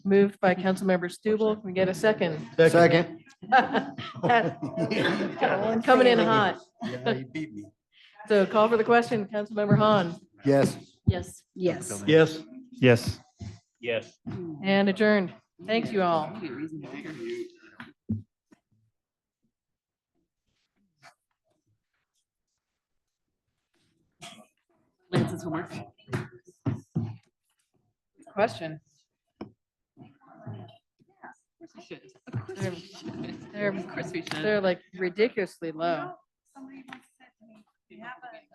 Moved by Councilmember Stubble. Can we get a second? Second. Coming in hot. Yeah, you beat me. So call for the question, Councilmember Han, Yes. Yes. Yes. Yes. Yes. Yes. and adjourned. Thank you all. Lance's homework. Question. Of course we should. Of course we should. They're- Of course we should. They're like ridiculously low.